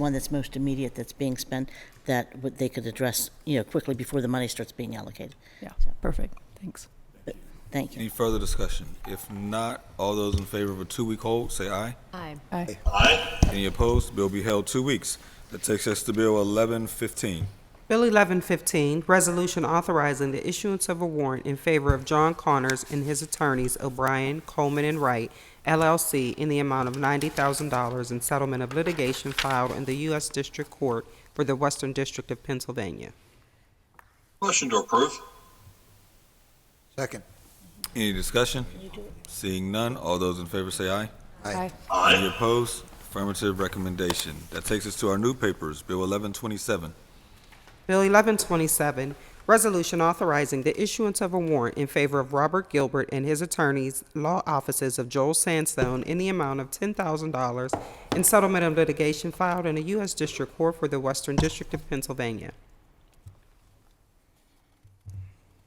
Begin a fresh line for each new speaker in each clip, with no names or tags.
one that's most immediate that's being spent that would- they could address, you know, quickly before the money starts being allocated.
Yeah,
So,
perfect. Thanks.
Thank you.
Any further discussion? If not, all those in favor of a two-week hold, say aye.
Aye.
Aye.
Any opposed? Bill be held two weeks. That takes us to Bill 1115.
Bill 1115, Resolution Authorizing the Issuance of a Warrant in Favor of John Connors and His Attorneys O'Brien, Coleman, and Wright, LLC, in the amount of $90,000 in settlement of litigation filed in the U.S. District Court for the Western District of Pennsylvania.
Motion to approve.
Second.
Any discussion? Seeing none, all those in favor say aye.
Aye.
Any opposed? Affirmative recommendation. That takes us to our new papers, Bill 1127.
Bill 1127, Resolution Authorizing the Issuance of a Warrant in Favor of Robert Gilbert and His Attorneys Law Offices of Joel Sandstone in the amount of $10,000 in settlement of litigation filed in the U.S. District Court for the Western District of Pennsylvania.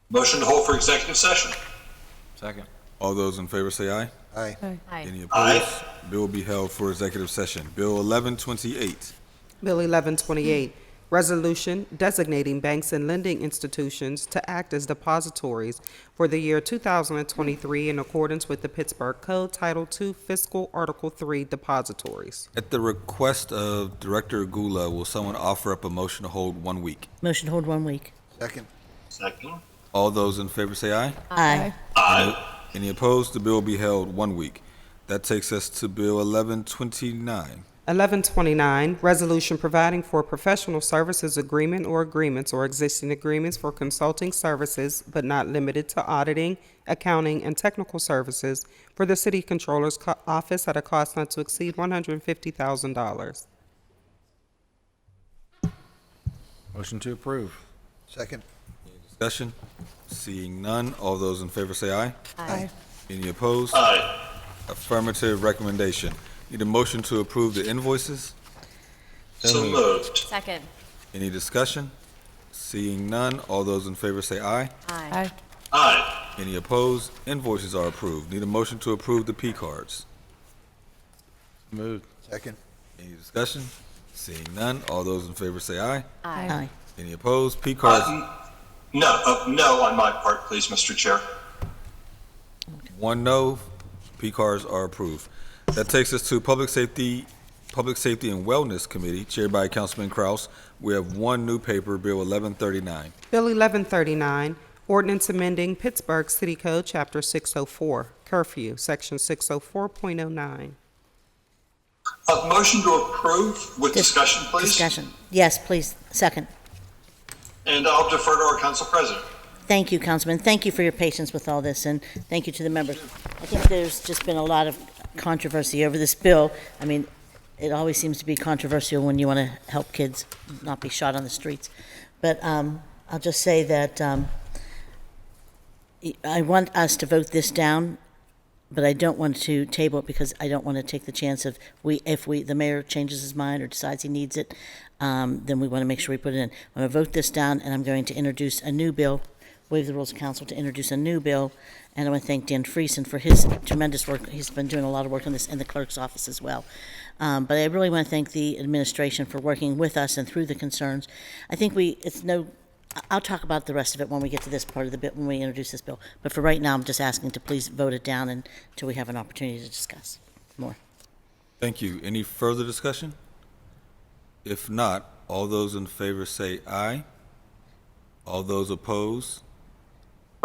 Motion to hold for executive session.
Second. All those in favor say aye.
Aye.
Aye.
Any
Aye.
opposed? Bill will be held for executive session. Bill 1128.
Bill 1128, Resolution Designating Banks and Lending Institutions to Act as Depositories for the Year 2023 in accordance with the Pittsburgh Code Title II Fiscal Article 3 Depositories.
At the request of Director Gula, will someone offer up a motion to hold one week?
Motion to hold one week.
Second.
Second.
All those in favor say aye.
Aye.
Aye.
Any opposed? The bill will be held one week. That takes us to Bill 1129.
1129, Resolution Providing for a Professional Services Agreement or Agreements or Existing Agreements for Consulting Services but Not Limited to Auditing, Accounting, and Technical Services for the City Controller's Co- Office at a cost not to exceed $150,000.
Motion to approve.
Second.
Discussion? Seeing none, all those in favor say aye.
Aye.
Any opposed?
Aye.
Affirmative recommendation. Need a motion to approve the invoices?
So moved.
Second.
Any discussion? Seeing none, all those in favor say aye.
Aye.
Aye.
Aye.
Any opposed? Invoices are approved. Need a motion to approve the P cards?
Moved.
Second.
Any discussion? Seeing none, all those in favor say aye.
Aye.
Aye.
Any opposed? P cards
Uh, n- No, uh, no on my part, please, Mr. Chair.
One no, P cards are approved. That takes us to Public Safety, Public Safety and Wellness Committee, chaired by Councilman Kraus. We have one new paper, Bill 1139.
Bill 1139, Ordinance Amending Pittsburgh City Code, Chapter 604, Curfew, Section 604.09.
Uh, motion to approve with
Dis-
discussion, please.
Discussion. Yes, please. Second.
And I'll defer to our council president.
Thank you, Councilman. Thank you for your patience with all this, and thank you to the members. I think there's just been a lot of controversy over this bill. I mean, it always seems to be controversial when you want to help kids not be shot on the streets. But um, I'll just say that um, I want us to vote this down, but I don't want to table it because I don't want to take the chance of we if we the mayor changes his mind or decides he needs it, um, then we want to make sure we put it in. I'm going to vote this down, and I'm going to introduce a new bill waive the rules of council to introduce a new bill. And I want to thank Dan Friesen for his tremendous work. He's been doing a lot of work on this in the clerk's office as well. Um, but I really want to thank the administration for working with us and through the concerns. I think we, it's no, I- I'll talk about the rest of it when we get to this part of the bit, when we introduce this bill. But for right now, I'm just asking to please vote it down until we have an opportunity to discuss more.
Thank you. Any further discussion? If not, all those in favor say aye. All those opposed?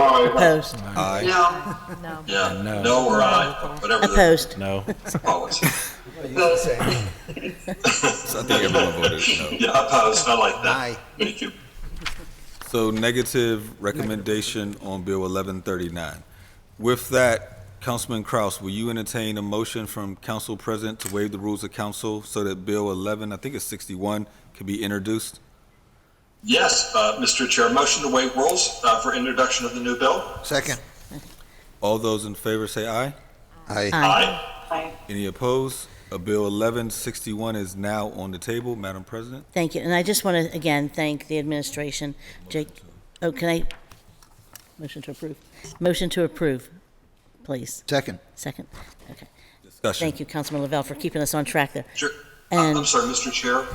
Opposed?
Aye.
No.
No.
Yeah,
No.
no or aye, whatever the
Opposed?
No.
policy.
So I think everyone voted no.
Yeah, opposed, I like that.
Aye.
Thank you.
So negative recommendation on Bill 1139. With that, Councilman Kraus, will you entertain a motion from Council President to waive the rules of council so that Bill 11, I think it's 61, can be introduced?
Yes, uh, Mr. Chair, motion to waive rules, uh, for introduction of the new bill.
Second.
All those in favor say aye.
Aye.
Aye.
Aye.
Any opposed? A Bill 1161 is now on the table, Madam President.
Thank you. And I just want to, again, thank the administration. Jake, oh, can I? Motion to approve. Motion to approve, please.
Second.
Second. Okay.
Discussion.
Thank you, Councilman Lavelle, for keeping us on track there.
Sure. Uh, I'm
And
sorry, Mr. Chair.